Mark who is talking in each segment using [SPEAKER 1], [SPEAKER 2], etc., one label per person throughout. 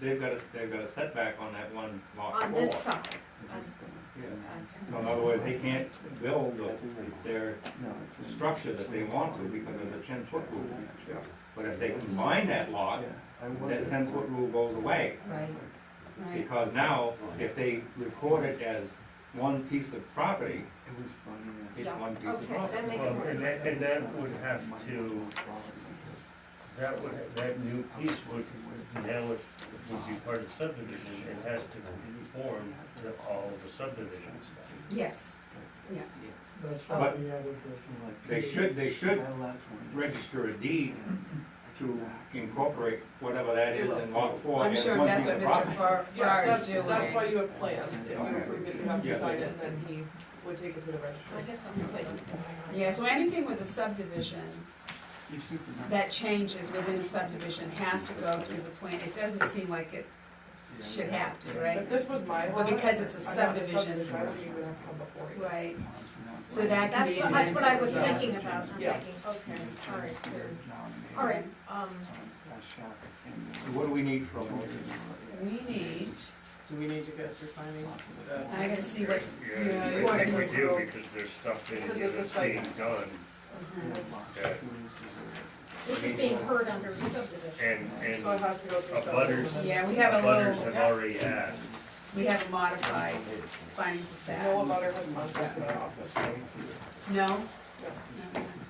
[SPEAKER 1] They've got a, they've got a setback on that one lot four.
[SPEAKER 2] on this side.
[SPEAKER 1] Yeah. So in other words, they can't build their structure that they want to because of the ten foot rule. But if they combine that lot, that ten foot rule goes away.
[SPEAKER 2] Right, right.
[SPEAKER 1] Because now, if they record it as one piece of property, it's
[SPEAKER 2] Yeah,
[SPEAKER 1] one piece of
[SPEAKER 2] okay, that
[SPEAKER 1] property.
[SPEAKER 2] makes
[SPEAKER 3] Well,
[SPEAKER 2] more
[SPEAKER 3] and that, and that would have to, that would, that new piece would, now it would be part of subdivision, it has to conform to all the subdivision stuff.
[SPEAKER 2] Yes, yeah,
[SPEAKER 4] That's why
[SPEAKER 1] But
[SPEAKER 4] we added
[SPEAKER 1] They should, they should
[SPEAKER 4] this.
[SPEAKER 1] register a deed to incorporate whatever that is in lot four
[SPEAKER 2] I'm
[SPEAKER 1] as
[SPEAKER 2] sure
[SPEAKER 1] one
[SPEAKER 2] that's
[SPEAKER 1] piece
[SPEAKER 2] what
[SPEAKER 1] of property.
[SPEAKER 2] Mr. Farr
[SPEAKER 5] Yeah,
[SPEAKER 2] is
[SPEAKER 5] that's,
[SPEAKER 2] doing.
[SPEAKER 5] that's why you have plans, if you
[SPEAKER 1] Okay.
[SPEAKER 5] approve it, you have
[SPEAKER 1] Yeah.
[SPEAKER 5] to sign it, and then he would take it to the registry.
[SPEAKER 2] I guess I'm like- Yeah, so anything with a subdivision that changes within a subdivision has to go through the plan, it doesn't seem like it should have to,
[SPEAKER 5] If
[SPEAKER 2] right?
[SPEAKER 5] this was my
[SPEAKER 2] Well,
[SPEAKER 5] lot,
[SPEAKER 2] because it's a
[SPEAKER 5] I'm not
[SPEAKER 2] subdivision.
[SPEAKER 5] I don't even have to come before you.
[SPEAKER 2] Right, so that can
[SPEAKER 6] That's
[SPEAKER 2] be
[SPEAKER 6] what, that's what I was
[SPEAKER 2] amended.
[SPEAKER 6] thinking about, I'm
[SPEAKER 5] Yeah.
[SPEAKER 6] thinking, okay, all right, so, all
[SPEAKER 2] Alright.
[SPEAKER 6] right, um,
[SPEAKER 1] So What do we need from,
[SPEAKER 2] We need,
[SPEAKER 7] Do we need to get your findings? Uh,
[SPEAKER 2] I gotta see what,
[SPEAKER 5] Yeah, you
[SPEAKER 3] Yeah,
[SPEAKER 5] want
[SPEAKER 3] I think we
[SPEAKER 5] this
[SPEAKER 3] do,
[SPEAKER 5] little-
[SPEAKER 3] because there's stuff in
[SPEAKER 5] Because
[SPEAKER 3] here
[SPEAKER 5] it's
[SPEAKER 3] that's
[SPEAKER 5] just like-
[SPEAKER 3] being done, that,
[SPEAKER 6] this is being heard under subdivision.
[SPEAKER 3] and, and
[SPEAKER 5] So it has to go through
[SPEAKER 3] A butters.
[SPEAKER 5] subdivision.
[SPEAKER 2] yeah, we have a
[SPEAKER 3] butters
[SPEAKER 2] little,
[SPEAKER 3] have already asked.
[SPEAKER 2] we have a modified findings of
[SPEAKER 5] No
[SPEAKER 2] fact.
[SPEAKER 5] butter has contacted my office.
[SPEAKER 2] No?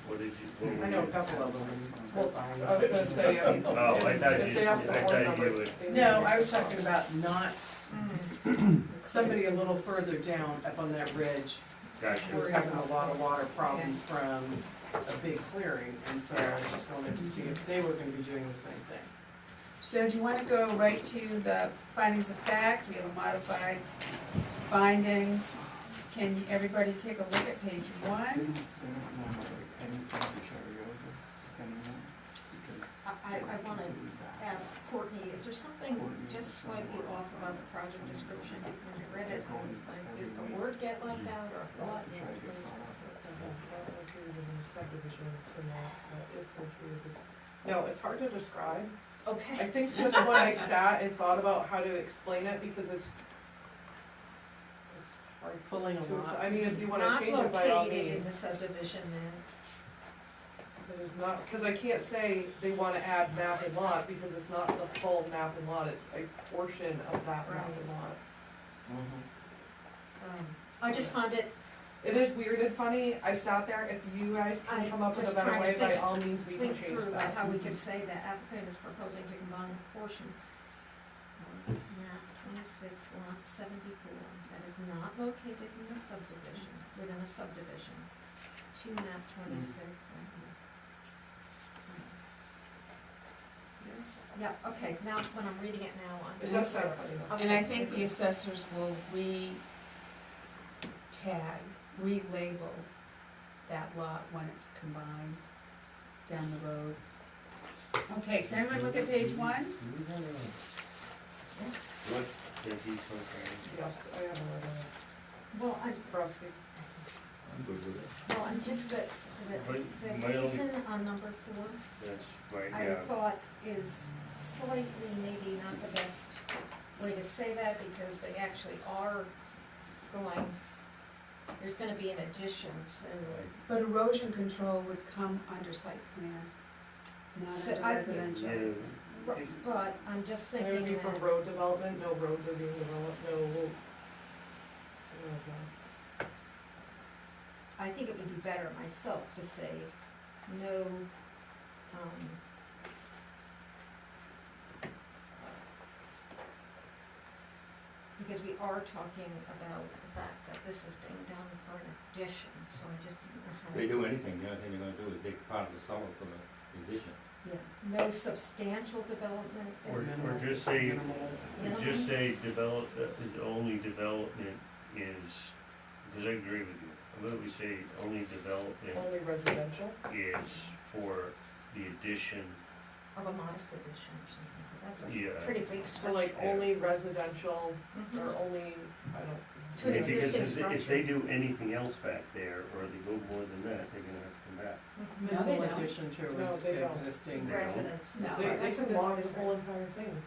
[SPEAKER 3] What did you, what were
[SPEAKER 7] I
[SPEAKER 3] you-
[SPEAKER 7] know a couple of them.
[SPEAKER 5] Well, I was gonna say, um,
[SPEAKER 3] Oh, I thought
[SPEAKER 5] if
[SPEAKER 3] you-
[SPEAKER 5] they ask the
[SPEAKER 3] I
[SPEAKER 5] board
[SPEAKER 3] thought you
[SPEAKER 5] member,
[SPEAKER 3] would-
[SPEAKER 5] they would-
[SPEAKER 7] uh, No, I was talking about not,
[SPEAKER 5] Mm.
[SPEAKER 7] somebody a little further down up on that ridge
[SPEAKER 3] Gotcha.
[SPEAKER 7] was having a lot of water problems from a big clearing, and so I just wanted to see if they were gonna be doing the same thing.
[SPEAKER 2] So do you want to go right to the findings of fact? We have a modified findings. Can everybody take a look at page one?
[SPEAKER 6] I, I, I wanna ask Courtney, is there something just slightly off about the project description? When I read it, I was like, did the word get left out or a thought?
[SPEAKER 5] No, it's hard to describe. I
[SPEAKER 6] Okay,
[SPEAKER 5] think just when I sat and thought about how to explain it, because it's, it's hard
[SPEAKER 7] Pulling a
[SPEAKER 5] to,
[SPEAKER 7] lot.
[SPEAKER 5] I mean, if you wanna
[SPEAKER 6] not
[SPEAKER 5] change it by all
[SPEAKER 6] located in
[SPEAKER 5] means.
[SPEAKER 6] the subdivision then,
[SPEAKER 5] It is not, cause I can't say they wanna add map and lot, because it's not the full map and lot, it's a portion of that map and lot.
[SPEAKER 6] um, I just found it,
[SPEAKER 5] It is weird and funny, I sat there, if you guys
[SPEAKER 6] I
[SPEAKER 5] can come up with a
[SPEAKER 6] was
[SPEAKER 5] better
[SPEAKER 6] trying to
[SPEAKER 5] way, by
[SPEAKER 6] think-
[SPEAKER 5] all means, we can
[SPEAKER 6] think
[SPEAKER 5] change
[SPEAKER 6] through about
[SPEAKER 5] that.
[SPEAKER 6] how we could say the applicant is proposing to combine a portion of map twenty-six lot seventy-four that is not located in the subdivision, within a subdivision, to map twenty-six. and- Yeah, okay, now, when I'm reading it now, I'm.
[SPEAKER 5] It does sound funny though.
[SPEAKER 2] And I think the assessors will re-tag, relabel that lot when it's combined down the road. Okay, so everyone look at page one?
[SPEAKER 3] What did he complain?
[SPEAKER 5] Yes, I have a,
[SPEAKER 6] Well, I'm,
[SPEAKER 5] proxy.
[SPEAKER 6] well, I'm just, the, the,
[SPEAKER 3] But my
[SPEAKER 6] the
[SPEAKER 3] only-
[SPEAKER 6] reason on number four
[SPEAKER 3] That's right,
[SPEAKER 6] I
[SPEAKER 3] yeah.
[SPEAKER 6] thought is slightly maybe not the best way to say that because they actually are going, there's gonna be an addition to,
[SPEAKER 2] But erosion control would come under site plan,
[SPEAKER 6] So
[SPEAKER 2] not
[SPEAKER 6] I-
[SPEAKER 2] under residential.
[SPEAKER 3] You-
[SPEAKER 6] but I'm just
[SPEAKER 5] It would be
[SPEAKER 6] thinking
[SPEAKER 5] for
[SPEAKER 6] that,
[SPEAKER 5] road development, no roads are being developed, no. no,
[SPEAKER 6] I think it would be better myself to say no, um, because we are talking about the fact that this is being done for an addition, so I just didn't know how to.
[SPEAKER 1] they do anything, the only thing they're gonna do is dig part of the cellar for the addition.
[SPEAKER 6] Yeah, no substantial development
[SPEAKER 3] Or,
[SPEAKER 6] is.
[SPEAKER 3] or just say,
[SPEAKER 6] Minimal.
[SPEAKER 3] just say develop, uh, the only development is, because I agree with you. What do we say, only development
[SPEAKER 5] Only residential,
[SPEAKER 3] is for the addition,
[SPEAKER 6] Of a modest addition or something, because that's
[SPEAKER 3] yeah.
[SPEAKER 6] a pretty big
[SPEAKER 5] so
[SPEAKER 6] structure.
[SPEAKER 5] like uh, only residential
[SPEAKER 6] Mhm.
[SPEAKER 5] or only, I don't.
[SPEAKER 6] To an
[SPEAKER 3] Yeah, because
[SPEAKER 6] existing
[SPEAKER 3] if they- If
[SPEAKER 6] structure.
[SPEAKER 3] they do anything else back there, or they go more than that, they're gonna have to come back.
[SPEAKER 2] No, they
[SPEAKER 7] Minimal
[SPEAKER 2] don't.
[SPEAKER 7] addition to
[SPEAKER 5] No, they
[SPEAKER 7] res-
[SPEAKER 5] don't.
[SPEAKER 7] existing.
[SPEAKER 3] Right.
[SPEAKER 6] Mhm. Residence,
[SPEAKER 2] No.
[SPEAKER 6] no.
[SPEAKER 5] They,
[SPEAKER 6] right,
[SPEAKER 5] they
[SPEAKER 6] that's
[SPEAKER 5] can
[SPEAKER 6] good
[SPEAKER 5] log
[SPEAKER 6] way
[SPEAKER 5] the
[SPEAKER 6] to say
[SPEAKER 5] whole
[SPEAKER 6] it.
[SPEAKER 5] entire thing.